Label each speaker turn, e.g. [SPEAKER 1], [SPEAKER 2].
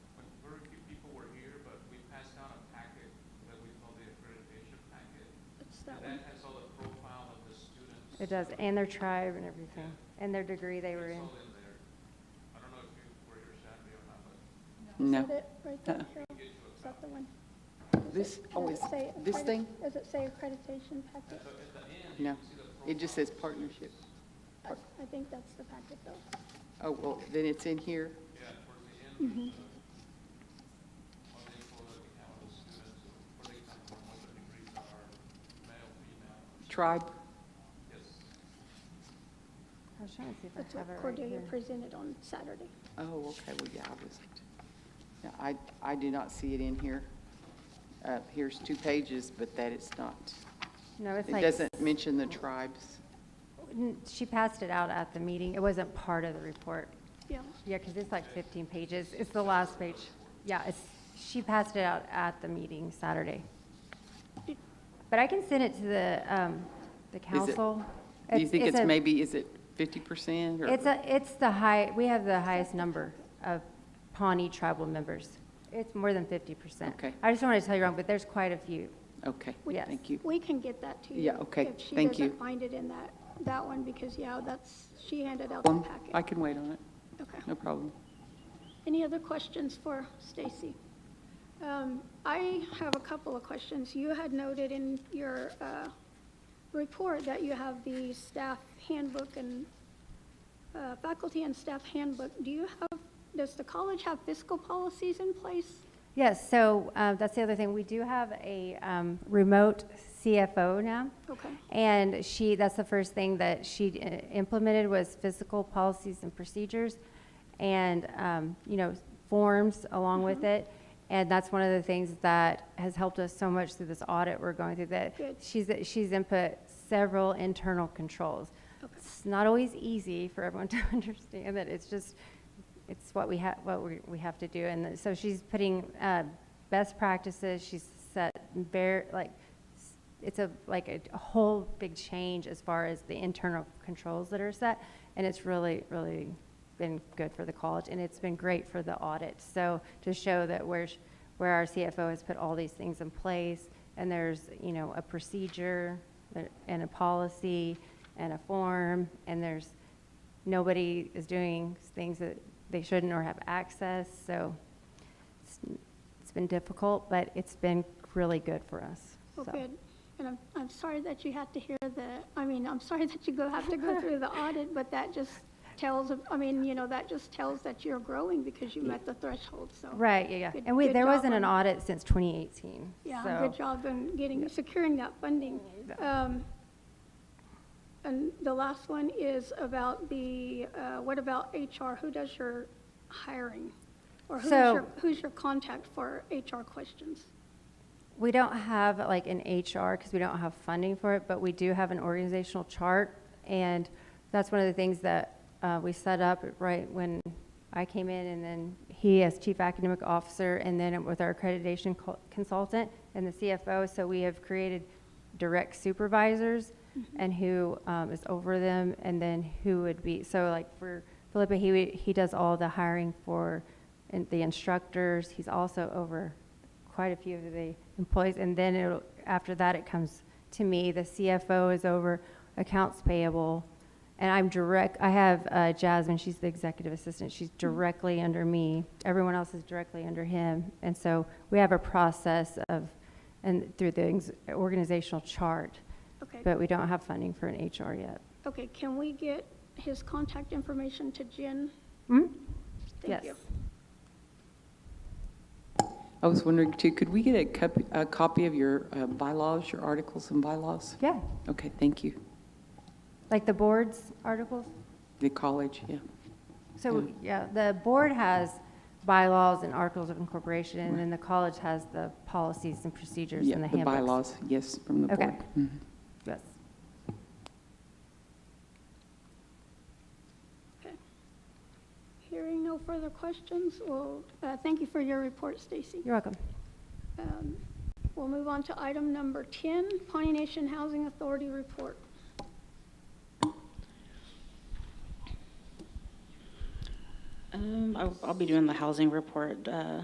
[SPEAKER 1] It does, and their tribe and everything, and their degree they were
[SPEAKER 2] It's
[SPEAKER 1] in.
[SPEAKER 2] all in there. I don't know if you were here Saturday or not, but
[SPEAKER 3] Is
[SPEAKER 4] No.
[SPEAKER 3] that it, right there,
[SPEAKER 4] Uh-uh.
[SPEAKER 3] Cheryl? Is that the one?
[SPEAKER 4] This, oh,
[SPEAKER 3] Does
[SPEAKER 4] is
[SPEAKER 3] it say
[SPEAKER 4] this
[SPEAKER 3] accredi-
[SPEAKER 4] thing?
[SPEAKER 3] Does it say accreditation packet?
[SPEAKER 4] No. It just says partnership.
[SPEAKER 3] I I think that's the packet, though.
[SPEAKER 4] Oh, well, then it's in here.
[SPEAKER 2] yeah, towards the end,
[SPEAKER 1] Mm-hmm.
[SPEAKER 2] there's a- are they for the account of students, where they come from, what their degrees are, male, female,
[SPEAKER 4] Tribe,
[SPEAKER 2] yes.
[SPEAKER 1] I was trying to see if
[SPEAKER 3] That's
[SPEAKER 1] I have it
[SPEAKER 3] what
[SPEAKER 1] right
[SPEAKER 3] Cordelia
[SPEAKER 1] here.
[SPEAKER 3] presented on Saturday.
[SPEAKER 4] oh, okay, well, yeah, I was, no, I, I do not see it in here. Uh, here's two pages, but that it's not,
[SPEAKER 1] No, it's
[SPEAKER 4] it
[SPEAKER 1] like,
[SPEAKER 4] doesn't mention the tribes.
[SPEAKER 1] n- she passed it out at the meeting. It wasn't part of the report.
[SPEAKER 3] Yeah.
[SPEAKER 1] Yeah, because it's like 15 pages. It's the last page. Yeah, it's, she passed it out at the meeting Saturday. But I can send it to the, um, the council.
[SPEAKER 4] Do you think it's
[SPEAKER 1] a-
[SPEAKER 4] maybe, is it fifty percent or?
[SPEAKER 1] It's a, it's the high, we have the highest number of Pawnee tribal members. It's more than 50%.
[SPEAKER 4] Okay.
[SPEAKER 1] I just want to tell you wrong, but there's quite a few.
[SPEAKER 4] Okay,
[SPEAKER 1] Yes.
[SPEAKER 4] thank you.
[SPEAKER 3] We can get that to you.
[SPEAKER 4] Yeah, okay,
[SPEAKER 3] If
[SPEAKER 4] thank
[SPEAKER 3] she
[SPEAKER 4] you.
[SPEAKER 3] doesn't find it in that, that one, because, yeah, that's, she handed out the
[SPEAKER 4] Um, I
[SPEAKER 3] packet.
[SPEAKER 4] can wait on it,
[SPEAKER 3] Okay.
[SPEAKER 4] no problem.
[SPEAKER 3] Any other questions for Stacy? Um, I have a couple of questions. You had noted in your uh, report that you have the staff handbook and uh, faculty and staff handbook. Do you have, does the college have fiscal policies in place?
[SPEAKER 1] Yes, so uh, that's the other thing. We do have a um, remote CFO now.
[SPEAKER 3] Okay.
[SPEAKER 1] And she, that's the first thing that she uh, implemented was physical policies and procedures and, um, you know, forms along
[SPEAKER 3] Mm-hmm.
[SPEAKER 1] with it. And that's one of the things that has helped us so much through this audit we're going through that
[SPEAKER 3] Good.
[SPEAKER 1] she's, she's input several internal controls.
[SPEAKER 3] Okay.
[SPEAKER 1] It's not always easy for everyone to understand that it's just, it's what we have, what we, we have to do. And so she's putting, uh, best practices, she's set bare, like, s- it's a, like a a whole big change as far as the internal controls that are set. And it's really, really been good for the college and it's been great for the audit. So to show that where, sh- where our CFO has put all these things in place and there's, you know, a procedure uh, and a policy and a form and there's, nobody is doing things that they shouldn't or have access. So it's, it's been difficult, but it's been really good for us.
[SPEAKER 3] Well,
[SPEAKER 1] so.
[SPEAKER 3] good. And I'm, I'm sorry that you had to hear the, I mean, I'm sorry that you go, have to go through the audit, but that just tells, I mean, you know, that just tells that you're growing because you met the threshold, so.
[SPEAKER 1] Right, yeah, yeah.
[SPEAKER 3] Good-
[SPEAKER 1] And we,
[SPEAKER 3] good
[SPEAKER 1] there
[SPEAKER 3] job
[SPEAKER 1] wasn't an
[SPEAKER 3] on-
[SPEAKER 1] audit since 2018.
[SPEAKER 3] Yeah,
[SPEAKER 1] so-
[SPEAKER 3] good job in getting, securing that funding. Um, And the last one is about the, uh, what about HR? Who does your hiring? Or who's
[SPEAKER 1] So-
[SPEAKER 3] your, who's your contact for HR questions?
[SPEAKER 1] We don't have like an HR because we don't have funding for it, but we do have an organizational chart. And that's one of the things that uh, we set up right when I came in and then he as chief academic officer and then with our accreditation co- consultant and the CFO. So we have created direct supervisors and who um, is over them and then who would be, so like for Philippa, he, would- he does all the hiring for in- the instructors. He's also over quite a few of the employees, and then it'll, after that, it comes to me. The CFO is over accounts payable, and I'm direct, I have uh, Jasmine, she's the executive assistant,
[SPEAKER 3] Mm-hmm.
[SPEAKER 1] she's directly under me. Everyone else is directly under him, and so we have a process of, and through the ex- organizational chart,
[SPEAKER 3] Okay.
[SPEAKER 1] but we don't have funding for an HR yet.
[SPEAKER 3] Okay, can we get his contact information to Jen?
[SPEAKER 1] Hmm?
[SPEAKER 3] Thank
[SPEAKER 1] Yes.
[SPEAKER 3] you.
[SPEAKER 4] I was wondering too, could we get a copy, a copy of your uh, bylaws, your articles and bylaws?
[SPEAKER 1] Yeah,
[SPEAKER 4] Okay, thank you.
[SPEAKER 1] like the board's articles?
[SPEAKER 4] The college, yeah.
[SPEAKER 1] So, yeah, the board has bylaws and articles of incorporation, and then the college has the policies and procedures
[SPEAKER 4] Yeah,
[SPEAKER 1] and the
[SPEAKER 4] the
[SPEAKER 1] handbooks.
[SPEAKER 4] bylaws, yes, from the
[SPEAKER 1] Okay.
[SPEAKER 4] board. Mhm.
[SPEAKER 1] Yes.
[SPEAKER 3] Okay. Hearing no further questions, well, uh, thank you for your report, Stacy.
[SPEAKER 1] You're welcome.
[SPEAKER 3] Um, We'll move on to item number 10, Pawnee Nation Housing Authority Report.
[SPEAKER 5] Um, I'll, I'll be doing the housing report, uh,